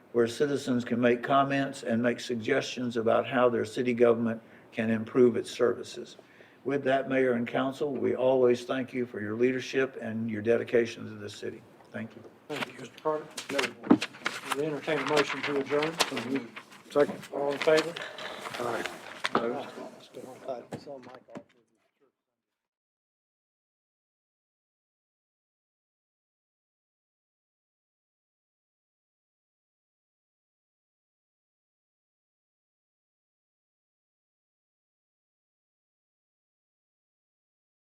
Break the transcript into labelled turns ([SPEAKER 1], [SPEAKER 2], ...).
[SPEAKER 1] where citizens can make comments and make suggestions about how their city government can improve its services. With that, Mayor and Council, we always thank you for your leadership and your dedication to the city. Thank you.
[SPEAKER 2] Thank you, Mr. Carter. We entertain a motion to adjourn.
[SPEAKER 3] Second.
[SPEAKER 2] All in favor?
[SPEAKER 3] All right.
[SPEAKER 2] Still on.
[SPEAKER 4] Uh, it's on my call.